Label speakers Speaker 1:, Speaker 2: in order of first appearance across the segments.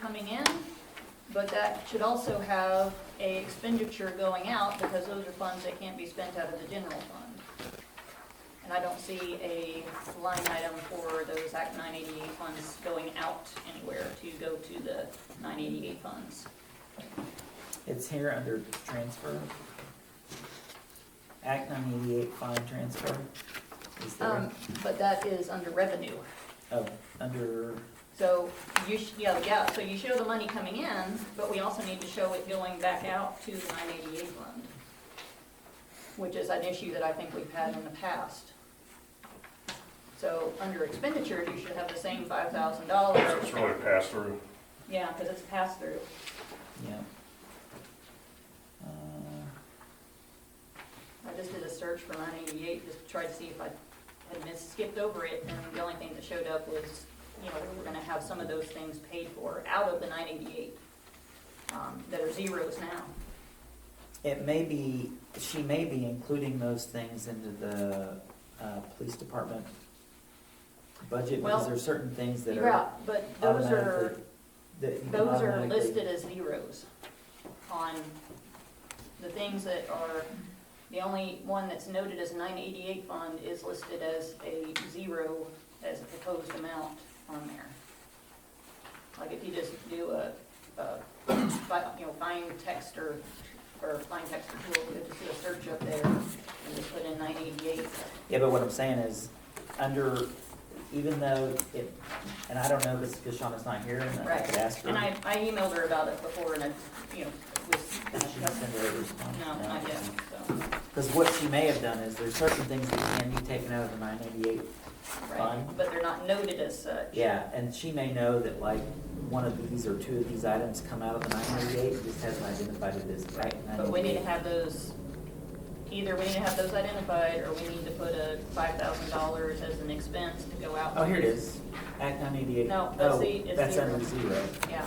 Speaker 1: coming in, but that should also have a expenditure going out because those are funds that can't be spent out of the general fund. And I don't see a line item for those Act 988 funds going out anywhere to go to the 988 funds.
Speaker 2: It's here under transfer. Act nine eighty-eight fund transfer. Is there,
Speaker 1: Um, But that is under revenue.
Speaker 2: oh, under,
Speaker 1: So you, sh- yeah, yeah, so you show the money coming in, but we also need to show it going back out to the 988 fund, which is an issue that I think we've had in the past. So under expenditures, you should have the same $5,000.
Speaker 3: It's really pass through.
Speaker 1: Yeah, because it's pass through.
Speaker 2: yeah. Uh,
Speaker 1: I just did a search for 988, just to try to see if I had missed, skipped over it, and the only thing that showed up was, you know, we we're gonna have some of those things paid for out of the 988, um, that are zeros now.
Speaker 2: It may be, she may be including those things into the, uh, police department budget,
Speaker 1: Well,
Speaker 2: because there are certain things that
Speaker 1: You're
Speaker 2: are
Speaker 1: out, but those are,
Speaker 2: automatically. that you can
Speaker 1: those are
Speaker 2: automatically-
Speaker 1: listed as zeros on the things that are, the only one that's noted as 988 fund is listed as a zero as a proposed amount on there. Like if you just do a, a, fi- you know, find text or, or find text or tool, you just do a search up there and just put in 988.
Speaker 2: Yeah, but what I'm saying is, under, even though it, and I don't know this because Shauna's not here, and I could
Speaker 1: Right.
Speaker 2: ask her.
Speaker 1: And I, I emailed her about it before and I, you know,
Speaker 2: Did she
Speaker 1: was,
Speaker 2: send her a response?
Speaker 1: No, not yet, so,
Speaker 2: Because what she may have done is, there's certain things that can be taken out of the nine eighty-eight.
Speaker 1: right,
Speaker 2: Fine.
Speaker 1: but they're not noted as such.
Speaker 2: Yeah, and she may know that like, one of these or two of these items come out of the nine eighty-eight, just hasn't identified it as.
Speaker 1: Right, but we need to have those, either we need to have those identified, or we need to put a five thousand dollars as an expense to go out.
Speaker 2: Oh, here it is, Act nine eighty-eight. Oh,
Speaker 1: No, that's the- it's
Speaker 2: That's
Speaker 1: zero.
Speaker 2: under zero.
Speaker 1: Yeah,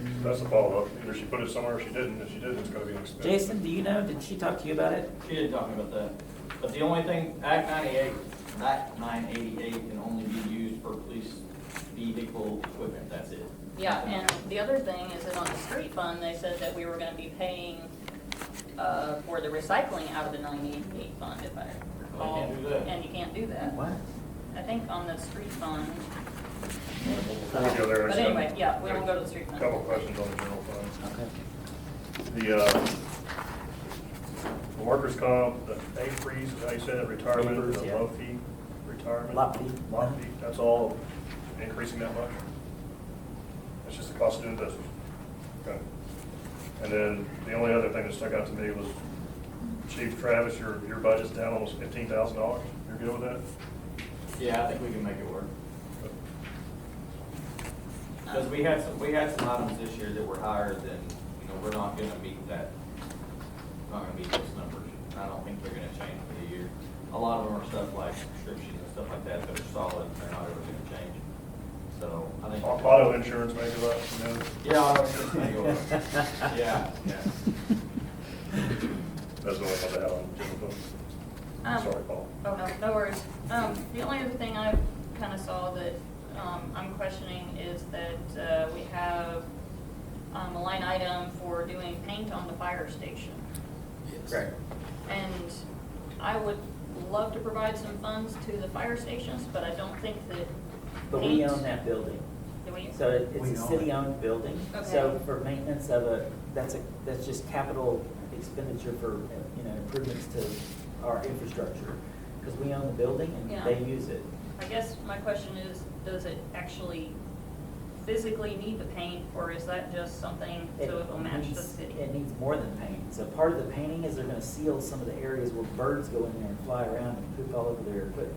Speaker 2: Mm.
Speaker 3: That's the follow-up. Either she put it somewhere or she didn't. If she didn't, it's gonna be an expense.
Speaker 2: Jason, do you know, did she talk to you about it?
Speaker 4: She didn't talk about that, but the only thing, Act ninety-eight, Act nine eighty-eight can only be used for police vehicle equipment, that's it.
Speaker 1: yeah, and the other thing is that on the street fund, they said that we were gonna be paying, uh, for the recycling out of the nine eighty-eight fund, if I recall.
Speaker 4: can't do that.
Speaker 1: And you can't do that.
Speaker 2: What?
Speaker 1: I think on the street fund,
Speaker 3: We go there and
Speaker 1: but
Speaker 3: set-
Speaker 1: anyway, yeah, we won't go to the street fund.
Speaker 3: Couple questions on the general fund.
Speaker 2: Okay.
Speaker 3: The, uh, the workers' comp, the pay freeze, is how you said it, retirement,
Speaker 2: Papers,
Speaker 3: the
Speaker 2: yeah.
Speaker 3: low fee, retirement.
Speaker 2: Lot fee.
Speaker 3: Lot fee, that's all increasing that much? It's just the cost of doing business. Okay. And then the only other thing that stuck out to me was Chief Travis, your, your budget's down almost fifteen thousand dollars. You're good with that?
Speaker 4: Yeah, I think we can make it work. Because we had some, we had some items this year that were higher than, you know, we're not gonna meet that, not gonna meet those numbers. I don't think they're gonna change for the year. A lot of them are stuff like prescriptions and stuff like that that are solid, they're not ever gonna change. So I think.
Speaker 3: Auto insurance maybe, like, you know,
Speaker 4: Yeah, I was just gonna go over. Yeah, yeah.
Speaker 3: that's the only one that I have on the general fund.
Speaker 1: Um,
Speaker 3: Sorry, Paul.
Speaker 1: Oh, no, no worries. Um, the only other thing I kind of saw that, um, I'm questioning is that, uh, we have, um, a line item for doing paint on the fire station.
Speaker 2: Correct.
Speaker 1: And I would love to provide some funds to the fire stations, but I don't think that.
Speaker 2: But we
Speaker 1: paint-
Speaker 2: own that building.
Speaker 1: Do we?
Speaker 2: So it-
Speaker 4: We
Speaker 2: it's a
Speaker 4: own it.
Speaker 2: city-owned building, so
Speaker 1: Okay.
Speaker 2: for maintenance of a, that's a, that's just capital expenditure for, you know, improvements to our infrastructure. Because we own the building
Speaker 1: Yeah.
Speaker 2: and they use it.
Speaker 1: I guess my question is, does it actually physically need the paint, or is that just something so it'll match the
Speaker 2: needs-
Speaker 1: city?
Speaker 2: It needs more than paint. So part of the painting is they're gonna seal some of the areas where birds go in there and fly around and poop all over their equipment.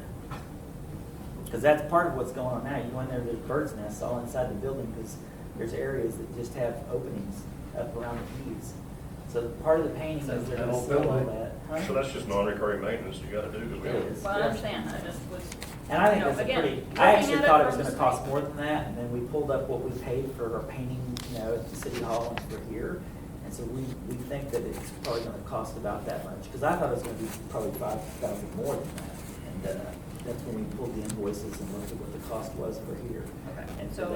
Speaker 2: Because that's part of what's going on now. You go in there, there's birds nests all inside the building because there's areas that just have openings up around the keys. So part of the painting is they're gonna seal all that. huh?
Speaker 3: So that's just non-recurring maintenance you gotta do, because we
Speaker 2: It
Speaker 3: don't.
Speaker 2: is.
Speaker 1: Well, I understand, I just was.
Speaker 2: And I think
Speaker 1: you know,
Speaker 2: that's a
Speaker 1: again,
Speaker 2: pretty,
Speaker 1: looking
Speaker 2: I
Speaker 1: at
Speaker 2: actually thought it was
Speaker 1: from
Speaker 2: gonna
Speaker 1: the
Speaker 2: cost
Speaker 1: street.
Speaker 2: more than that, and then we pulled up what we paid for our painting, you know, at the city hall and for here. And so we, we think that it's probably gonna cost about that much, because I thought it was gonna be probably five thousand more than that. And, uh, that's when we pulled the invoices and looked at what the cost was for here.
Speaker 1: Okay.
Speaker 2: And
Speaker 1: So